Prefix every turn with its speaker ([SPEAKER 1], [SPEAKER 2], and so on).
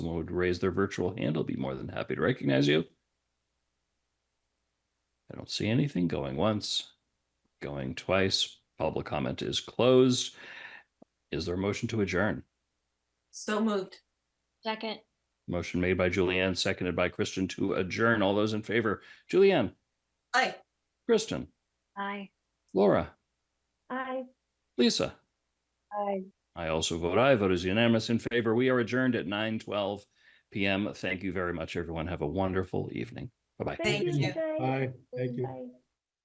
[SPEAKER 1] someone would raise their virtual hand, I'll be more than happy to recognize you. I don't see anything going once, going twice. Public comment is closed. Is there a motion to adjourn?
[SPEAKER 2] So moved.
[SPEAKER 3] Second,
[SPEAKER 1] Motion made by Julianne, seconded by Kristen to adjourn. All those in favor, Julianne,
[SPEAKER 2] Aye.
[SPEAKER 1] Kristen,
[SPEAKER 3] aye.
[SPEAKER 1] Laura,
[SPEAKER 3] Aye.
[SPEAKER 1] Lisa.
[SPEAKER 3] Aye.
[SPEAKER 1] I also vote aye. Vote is unanimous in favor. We are adjourned at nine twelve PM. Thank you very much, everyone. Have a wonderful evening. Bye bye.
[SPEAKER 2] Thank you.
[SPEAKER 3] guys.
[SPEAKER 4] Bye. Thank you.
[SPEAKER 3] Bye.